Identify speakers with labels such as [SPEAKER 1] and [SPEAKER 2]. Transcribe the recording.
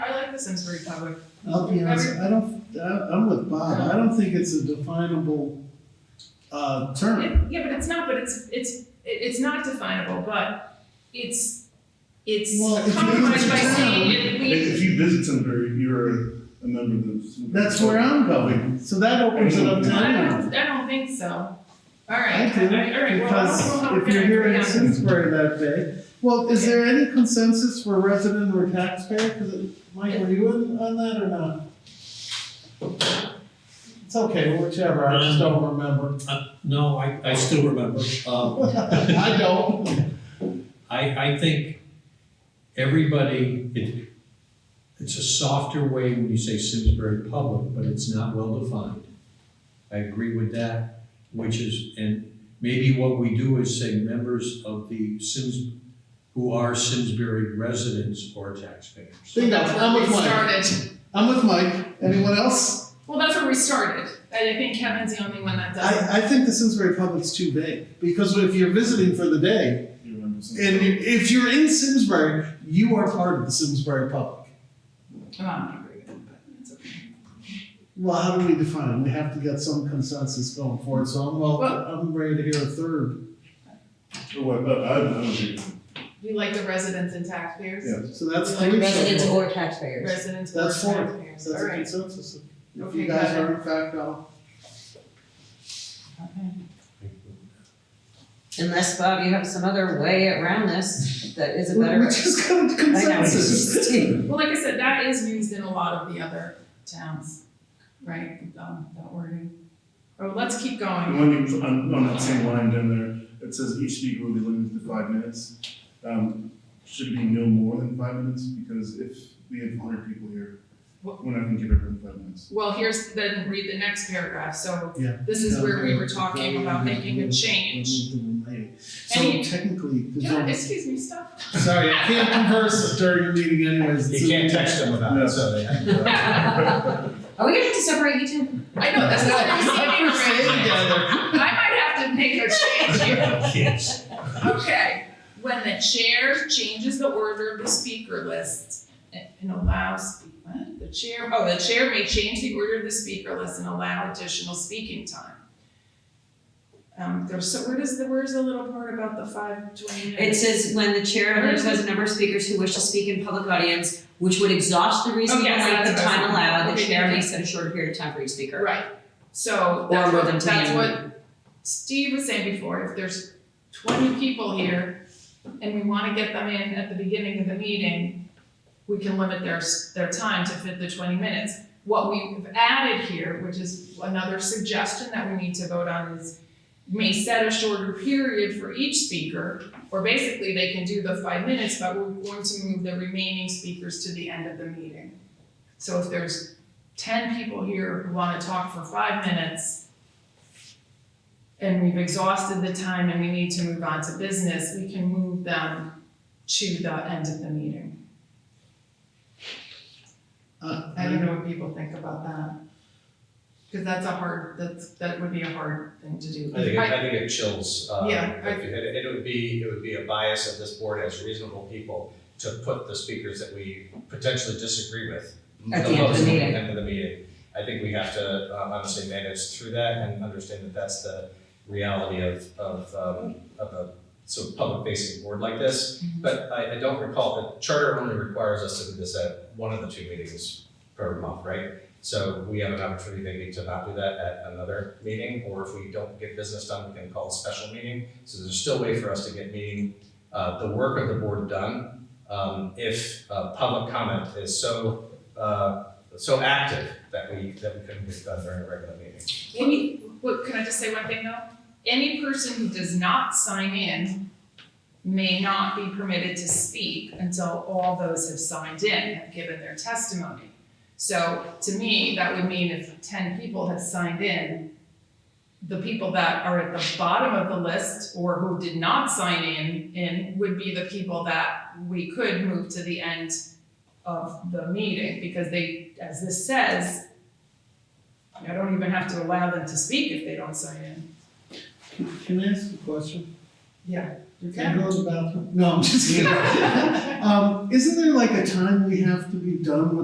[SPEAKER 1] citizens were recovered.
[SPEAKER 2] I'll be honest, I don't, I- I'm with Bob, I don't think it's a definable, uh, term.
[SPEAKER 1] Yeah, yeah, but it's not, but it's, it's, it- it's not definable, but it's, it's
[SPEAKER 2] Well, if you
[SPEAKER 1] compromised
[SPEAKER 2] use
[SPEAKER 1] by
[SPEAKER 2] the
[SPEAKER 1] saying it, we,
[SPEAKER 3] If you visit Sunbury, you're a member of the.
[SPEAKER 2] That's where I'm going, so that opens it up to
[SPEAKER 1] I
[SPEAKER 2] anyone.
[SPEAKER 1] don't, I don't think so. All
[SPEAKER 2] I
[SPEAKER 1] right, all
[SPEAKER 2] do,
[SPEAKER 1] right, all right, well, I don't know
[SPEAKER 2] because
[SPEAKER 1] how we're
[SPEAKER 2] if you're
[SPEAKER 1] gonna
[SPEAKER 2] here
[SPEAKER 1] agree
[SPEAKER 2] in
[SPEAKER 1] on this.
[SPEAKER 2] Simsbury that day, well, is there any consensus for resident or taxpayer? Cause it, Mike, were you in on that or not? It's okay, whichever, I just don't remember.
[SPEAKER 4] No, I, I still remember. Um,
[SPEAKER 2] I don't.
[SPEAKER 4] I, I think everybody, it, it's a softer way when you say Simsbury Public, but it's not well-defined. I agree with that, which is, and maybe what we do is say members of the Sims, who are Simsbury residents or taxpayers.
[SPEAKER 2] Bingo,
[SPEAKER 1] That's where
[SPEAKER 2] I'm with
[SPEAKER 1] we
[SPEAKER 2] Mike,
[SPEAKER 1] started.
[SPEAKER 2] I'm with Mike, anyone else?
[SPEAKER 1] Well, that's where we started, and I think Kevin's the only one that does.
[SPEAKER 2] I, I think the Simsbury Public's too big, because if you're visiting for the day,
[SPEAKER 3] You're a member of Simsbury.
[SPEAKER 2] And you- if you're in Simsbury, you are part of the Simsbury public.
[SPEAKER 1] Well, I'm not agreeing with him, but it's okay.
[SPEAKER 2] Well, how do we define? it? We have to get some consensus going forward, so I'm, well, I'm ready to hear a third.
[SPEAKER 3] Oh, I, I, I don't agree.
[SPEAKER 1] You like the residents and taxpayers?
[SPEAKER 3] Yeah.
[SPEAKER 2] So that's
[SPEAKER 5] Like
[SPEAKER 2] three. so
[SPEAKER 5] residents
[SPEAKER 2] far.
[SPEAKER 5] or taxpayers.
[SPEAKER 1] Residents or
[SPEAKER 2] That's four.
[SPEAKER 1] taxpayers,
[SPEAKER 2] That's
[SPEAKER 1] all
[SPEAKER 2] a
[SPEAKER 1] right.
[SPEAKER 2] consensus. If
[SPEAKER 1] Okay,
[SPEAKER 2] you guys
[SPEAKER 1] got it.
[SPEAKER 2] are in fact all.
[SPEAKER 5] Okay. Unless, Bob, you have some other way around this that is a
[SPEAKER 2] We we
[SPEAKER 5] better.
[SPEAKER 2] just got a
[SPEAKER 5] I know, it's
[SPEAKER 2] consensus.
[SPEAKER 5] just-
[SPEAKER 1] Well, like I said, that is used in a lot of the other towns, right, um, that wording. Oh, let's keep
[SPEAKER 3] And
[SPEAKER 1] going.
[SPEAKER 3] when you, on, on that same line down there, it says each speaker will be limited to five minutes. Um, should it be no more than five minutes? Because if we have hundred people here,
[SPEAKER 1] What-
[SPEAKER 3] we're not gonna give everyone five minutes.
[SPEAKER 1] Well, here's, then read the next paragraph, so
[SPEAKER 2] Yeah.
[SPEAKER 1] this is where we were talking about making a change.
[SPEAKER 2] So
[SPEAKER 1] Any-
[SPEAKER 2] technically, there's
[SPEAKER 1] Yeah,
[SPEAKER 2] only-
[SPEAKER 1] excuse me, stop.
[SPEAKER 2] sorry, I can't converse during a meeting anyways. It's
[SPEAKER 6] You
[SPEAKER 2] a
[SPEAKER 6] can't
[SPEAKER 2] meeting.
[SPEAKER 6] text them about it, so they have to.
[SPEAKER 5] Are we gonna have to separate you two?
[SPEAKER 1] I know, that's what I'm saying
[SPEAKER 2] We're staying
[SPEAKER 1] already.
[SPEAKER 2] together.
[SPEAKER 1] I might have to make a change here.
[SPEAKER 4] Yes.
[SPEAKER 1] Okay, when the chair changes the order of the speaker list and and allows, what? The chair, oh, the chair may change the order of the speaker list and allow additional speaking time. Um, there's, so where does the, where's the little part about the five, twenty
[SPEAKER 5] It
[SPEAKER 1] minutes?
[SPEAKER 5] says when the chair has a number of speakers who wish to speak in public audience, which would exhaust the reasonable
[SPEAKER 1] yes,
[SPEAKER 5] length of
[SPEAKER 1] that's what I
[SPEAKER 5] time
[SPEAKER 1] was-
[SPEAKER 5] allowed, the
[SPEAKER 1] okay,
[SPEAKER 5] chair
[SPEAKER 1] yeah.
[SPEAKER 5] may set a shorter period of time for each speaker.
[SPEAKER 1] Right, so
[SPEAKER 5] Or
[SPEAKER 1] that's
[SPEAKER 5] more
[SPEAKER 1] what,
[SPEAKER 5] than
[SPEAKER 1] that's
[SPEAKER 5] 10.
[SPEAKER 1] what Steve was saying before, if there's twenty people here and we wanna get them in at the beginning of the meeting, we can limit their, s- their time to fit the twenty minutes. What we've added here, which is another suggestion that we need to vote on is may set a shorter period for each speaker, or basically they can do the five minutes, but we're going to move the remaining speakers to the end of the meeting. So if there's ten people here who wanna talk for five minutes, and we've exhausted the time and we need to move on to business, we can move them to the end of the meeting.
[SPEAKER 2] Uh,
[SPEAKER 1] I don't know what people think about that. Cause that's a hard, that's, that would be a hard thing to do.
[SPEAKER 6] I think, it- I think it chills, uh,
[SPEAKER 1] Yeah, I-
[SPEAKER 6] it, it it would be, it would be a bias of this board as reasonable people to put the speakers that we potentially disagree with.
[SPEAKER 5] At the end of the
[SPEAKER 6] close to
[SPEAKER 5] meeting.
[SPEAKER 6] end of the meeting. I think we have to um, honestly manage through that and understand that that's the reality of, of, um, of a sort of public facing board like this.
[SPEAKER 5] Mm-hmm.
[SPEAKER 1] Mhm.
[SPEAKER 6] But I, I don't recall, the charter only requires us to do this at one of the two meetings per month, right? So we have an opportunity maybe to not do that at another meeting, or if we don't get business done, we can call a special meeting. So there's still a way for us to get meeting, uh, the work of the board done. Um, if, uh, public comment is so, uh, so active that we, that we couldn't get done during a regular meeting.
[SPEAKER 1] Any, what, can I just say one thing though? Any person who does not sign in may not be permitted to speak until all those have signed in, have given their testimony. So to me, that would mean if ten people have signed in, the people that are at the bottom of the list or who did not sign in, in would be the people that we could move to the end of the meeting because they, as this says, I don't even have to allow them to speak if they don't sign in.
[SPEAKER 2] Can I ask a question?
[SPEAKER 1] Yeah. You
[SPEAKER 2] Can I
[SPEAKER 1] can.
[SPEAKER 2] go to the bathroom? No, I'm just kidding. Um, isn't there like a time we have to be done with